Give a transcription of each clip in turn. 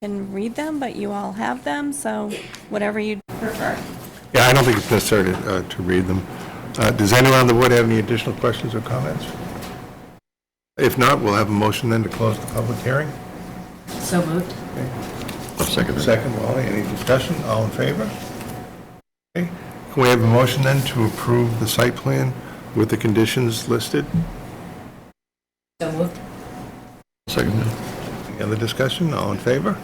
can read them, but you all have them, so whatever you prefer. Yeah, I don't think it's necessary to, uh, to read them. Uh, Does anyone on the board have any additional questions or comments? If not, we'll have a motion then to close the public hearing. So moved. Second. Second, Wally, any discussion? All in favor? Okay. Can we have a motion then to approve the site plan with the conditions listed? So moved. Second. Any other discussion? All in favor?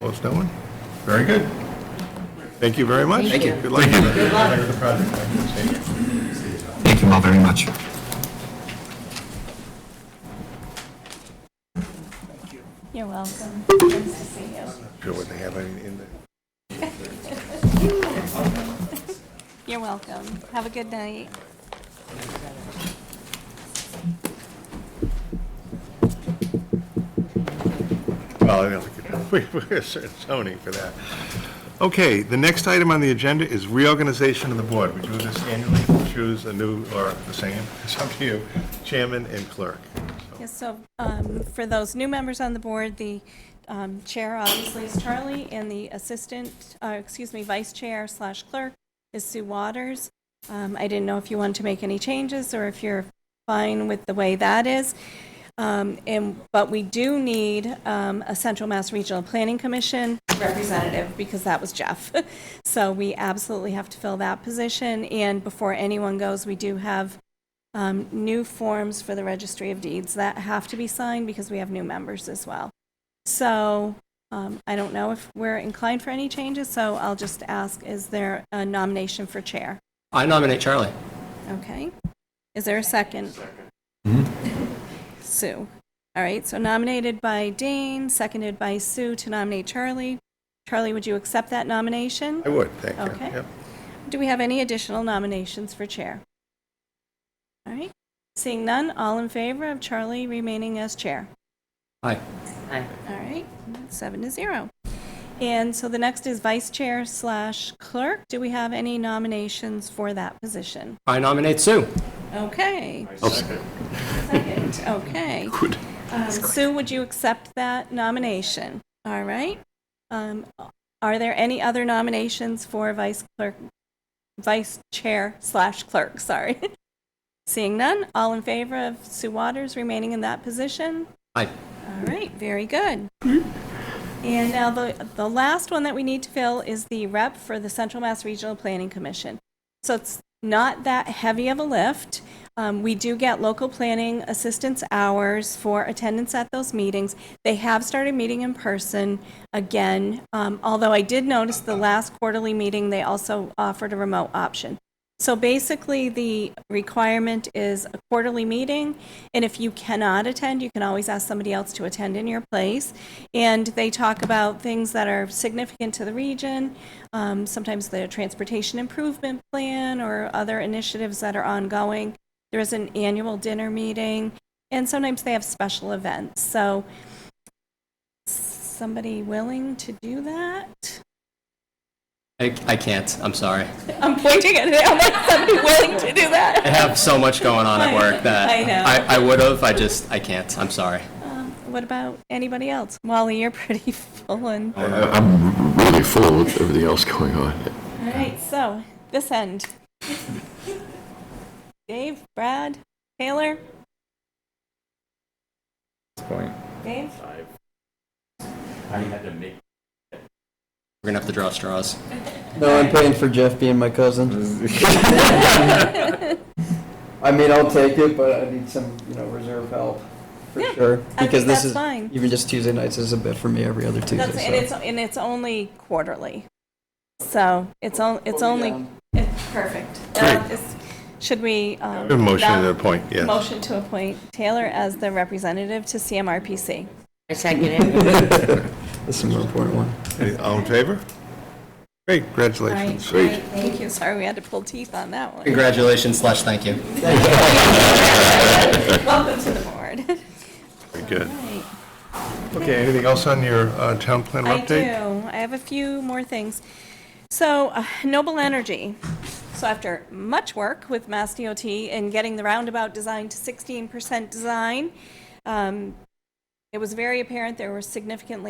Opposed, no one? Very good. Thank you very much. Thank you. Good luck. Good luck with the project. Thank you all very much. You're welcome. Nice to see you. Sure what they have in in there. You're welcome. Have a good night. Well, I don't think, we- we're a certain zoning for that. Okay, the next item on the agenda is reorganization of the board. We do this annually, We choose a new or the same, it's up to you, chairman and clerk. Yes, so um, for those new members on the board, the um, chair obviously is Charlie, and the assistant, uh, excuse me, vice chair slash clerk is Sue Waters. Um, I didn't know if you wanted to make any changes, or if you're fine with the way that is. Um, And, but we do need um, a Central Mass Regional Planning Commission representative, because that was Jeff. So we absolutely have to fill that position, and before anyone goes, we do have um, new forms for the registry of deeds that have to be signed because we have new members as well. So um, I don't know if we're inclined for any changes, so I'll just ask, is there a nomination for chair? I nominate Charlie. Okay. Is there a second? Sue. All right, so nominated by Dane, seconded by Sue to nominate Charlie. Charlie, would you accept that nomination? I would, thank you. Okay. Yep. Do we have any additional nominations for chair? All right, seeing none, all in favor of Charlie remaining as chair? Aye. Aye. All right, seven to zero. And so the next is vice chair slash clerk. Do we have any nominations for that position? I nominate Sue. Okay. Second, okay. Good. Um, Sue, would you accept that nomination? All right. Um, Are there any other nominations for vice clerk, vice chair slash clerk, sorry? Seeing none, all in favor of Sue Waters remaining in that position? Aye. All right, very good. And now the, the last one that we need to fill is the rep for the Central Mass Regional Planning Commission. So it's not that heavy of a lift. Um, we do get local planning assistance hours for attendance at those meetings. They have started meeting in person again, um, although I did notice the last quarterly meeting, they also offered a remote option. So basically, the requirement is a quarterly meeting, and if you cannot attend, you can always ask somebody else to attend in your place. And they talk about things that are significant to the region, um, sometimes the transportation improvement plan or other initiatives that are ongoing. There is an annual dinner meeting, and sometimes they have special events. So, somebody willing to do that? I, I can't. I'm sorry. I'm pointing at it, I'm like, somebody willing to do that? I have so much going on at work that I know. I, I would have. I just, I can't. I'm sorry. Um, What about anybody else? Wally, you're pretty full and, all I'm really full with everything else going on. right, so, this end. Dave, Brad, Taylor? Dave? We're going to have to draw straws. No, I'm paying for Jeff being my cousin. I mean, I'll take it, but I need some, you know, reserve help for Yeah, sure. I Because think this that's is fine. even just Tuesday nights is a bit for me every other Tuesday. That's, and it's, and it's only quarterly. So, it's on, it's Oh, only, it's perfect. Uh, it's- Should we? um, A motion to now- appoint, yes. Motion to appoint Taylor as the representative to CMRPC. I second it. This is a more important one. Any- All in favor? Great, All right, congratulations. great, thank you. Sorry, we had to pull teeth on that one. Congratulations slash thank you. Welcome to the board. Very good. Right. Okay, anything else on your uh, town planner I do. update? I have a few more things. So, uh, Noble Energy. So after much work with Mass DOT and getting the roundabout design to 16% design, um, it was very apparent there were significantly